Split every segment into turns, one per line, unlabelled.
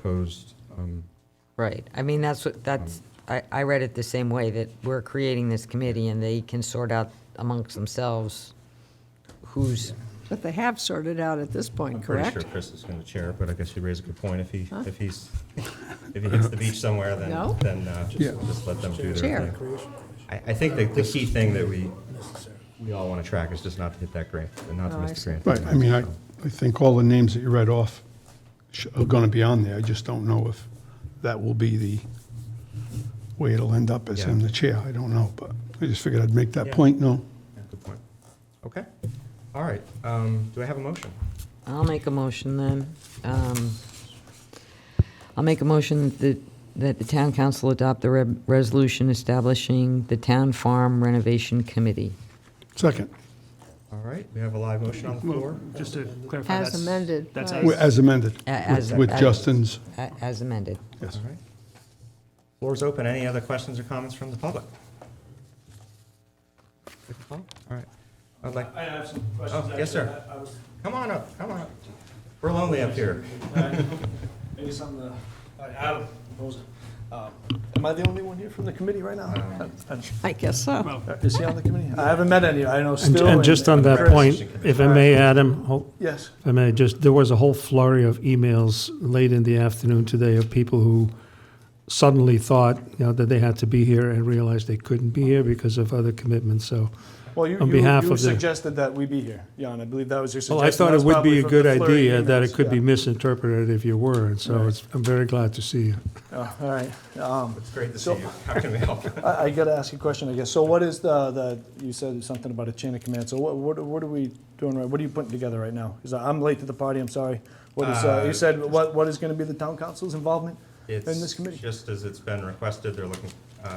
proposed, um,
Right, I mean, that's what, that's, I, I read it the same way, that we're creating this committee and they can sort out amongst themselves who's,
But they have sorted out at this point,
I'm pretty sure
correct?
Chris is going to chair, it, but I guess you raise a good point. If he, if he's, if he hits the beach somewhere, then,
No?
then uh,
Yeah.
just let them do their
Chair.
thing. I, I think the, the key thing that we, we all want to track is just not to hit that grant, and not to
Oh, I
miss
see.
the grant.
Right, I mean, I, I think all the names that you read off sh- are going to be on there. I just don't know if that will be the way it'll end up as him
Yeah.
the chair. I don't know, but I just figured I'd make that point, no?
Yeah, Good point. Okay, all right. Um, Do I have a motion?
I'll make a motion then. Um, I'll make a motion that, that the town council adopt the re- resolution establishing the town farm renovation committee.
Second,
All right, we have a live motion on the floor.
Just to clarify.
As
that's-
amended,
That's
right.
Well,
as,
as amended,
A- as-
with- with
as-
Justin's,
a- As amended.
yes.
All right. Floor's open. Any other questions or comments from the public? Good call. All right. I'd like,
I have some
oh,
questions.
yes,
actually.
sir.
I- I was-
Come on up, come on up. We're lonely up here.
I- Maybe something to, I have proposed. Um, Am I the only one here from the committee right now?
Um,
I guess so.
Uh, Is he on the committee? I haven't met any, I know
And-
Stu.
And just on that
Chris.
point, if I may, Adam, ho-
Yes,
if I may, just, there was a whole flurry of emails late in the afternoon today of people who suddenly thought, you know, that they had to be here and realized they couldn't be here because of other commitments, so.
well, you,
On
you-
behalf
you
of the-
suggested that we be here, Jan, I believe that was your suggestion.
Well, I thought it
That's
would be
probably
a
from
good
the flurry
idea
of
that it
emails.
could be
Yeah.
misinterpreted if you were, and so
Right.
it's, I'm very glad to see you.
Oh, All right. Um,
It's great to see
So-
you. How can we help?
I, I gotta ask you a question, I guess. So what is the, the, you said something about a chain of command, so what, what, are- what are we doing right, what are you putting together right now? Is, that- I'm late to the party, I'm sorry. What is, uh,
Uh,
you said, what, what is gonna be the town council's involvement? And
It's
this committee?
just as it's been requested, they're looking, uh,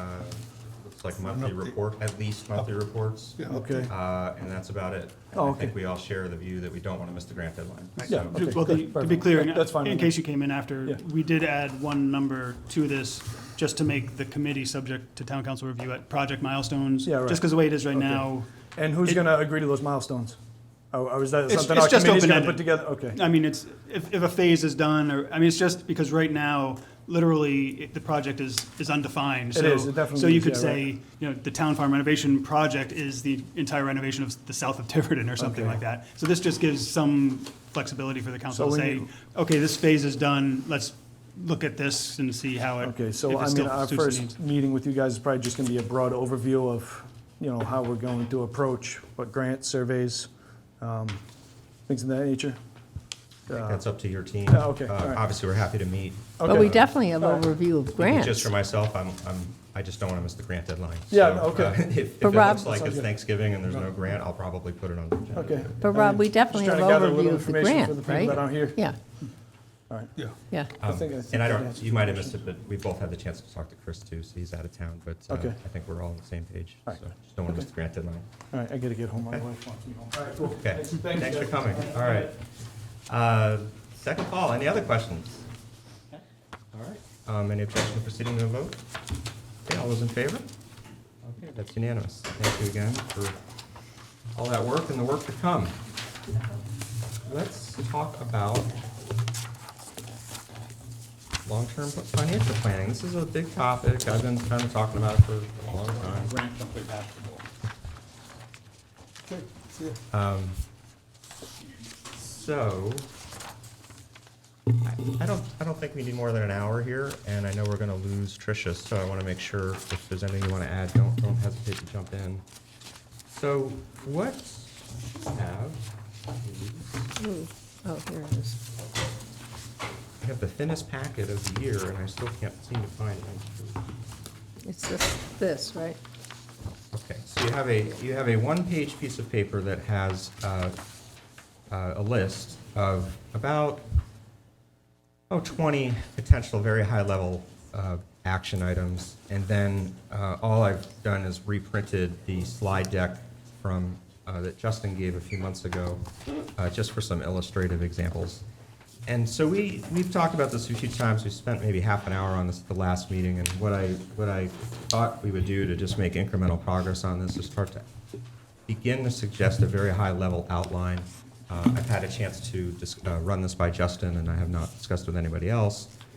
it's like monthly report, at least monthly reports.
Yeah.
Okay,
Uh, And that's about it. And
Oh,
I think
okay.
we all share the view that we don't want to miss the grant deadline.
yeah,
So-
okay,
well,
good,
the- to be
perfect.
clear,
That's fine.
in case you came in
Yeah.
after, we did add one number to this, just to make the committee subject to town council review at project milestones.
Yeah, right.
Just because the way it is right
Okay.
now,
And who's
it-
gonna agree to those milestones? Or, or is that
It's-
something
it's
our
just
committee's gonna
open-ended.
put together? Okay,
I mean, it's, if, if a phase is done, or, I mean, it's just because right now, literally, it- the project is, is undefined.
It
so-
is, it definitely
So you
is,
could
yeah,
say, you know, the town farm renovation project is the entire renovation of the south of Tiverton or something
Okay.
like that. So this just gives some flexibility for the council to
when
say,
you-
okay, this phase is done, let's look at this and see how it, if
okay,
it
so
still
I
suits
mean, our
the needs.
first meeting with you guys is probably just gonna be a broad overview of, you know, how we're going to approach, what grants, surveys, um, things of that nature.
I think That's up to your team.
Oh, okay,
Uh,
all right.
Obviously, we're happy to meet.
But we definitely have overview of
Just
grants.
for myself, I'm, I'm, I just don't want to miss the grant deadline.
Yeah,
So,
okay.
uh, If, if it
But Rob-
looks like
Sounds
it's
good.
Thanksgiving and there's no grant, I'll probably put it on the agenda.
Okay.
But Rob, we definitely
Just
have
trying to gather a
overview
little
of the
information
grant,
for the people
right?
that aren't here.
Yeah,
Yeah.
yeah.
I
Um,
think- I think
And I
that
don't,
answers
you
my
might have missed
question.
it, but we both had the chance to talk to Chris too, so he's out of town, but uh,
Okay.
I think we're all on the same page. So
All right.
just don't want to miss the grant deadline.
All right, I gotta get home, my wife wants me home. All right, cool.
Okay, thanks for coming, all right. Uh, Second call, any other questions? All right, Um, any objection to proceeding to a vote? Okay, all those in favor? Okay, that's unanimous. Thank you again for all that work and the work to come. Let's talk about long-term financial planning. This is a big topic, I've been kind of talking about it for a long time. Um, So, I I don't, I don't think we need more than an hour here, and I know we're gonna lose Tricia, so I wanna make sure if there's anything you wanna add, don't, don't hesitate to jump in. So, what we have, is-
Ooh, Oh, here it is.
I have the thinnest packet of the year, and I still can't seem to find it.
It's this, this, right?
Okay, so you have a, you have a one-page piece of paper that has uh, uh, a list of about, oh, 20 potential very high-level uh, action items. And then uh, all I've done is reprinted the slide deck from, uh, that Justin gave a few months ago, uh, just for some illustrative examples. And so we, we've talked about this a few times, we spent maybe half an hour on this at the last meeting, and what I, what I thought we would do to just make incremental progress on this is start to begin to suggest a very high-level outline. Uh, I've had a chance to dis- uh, run this by Justin, and I have not discussed with anybody else.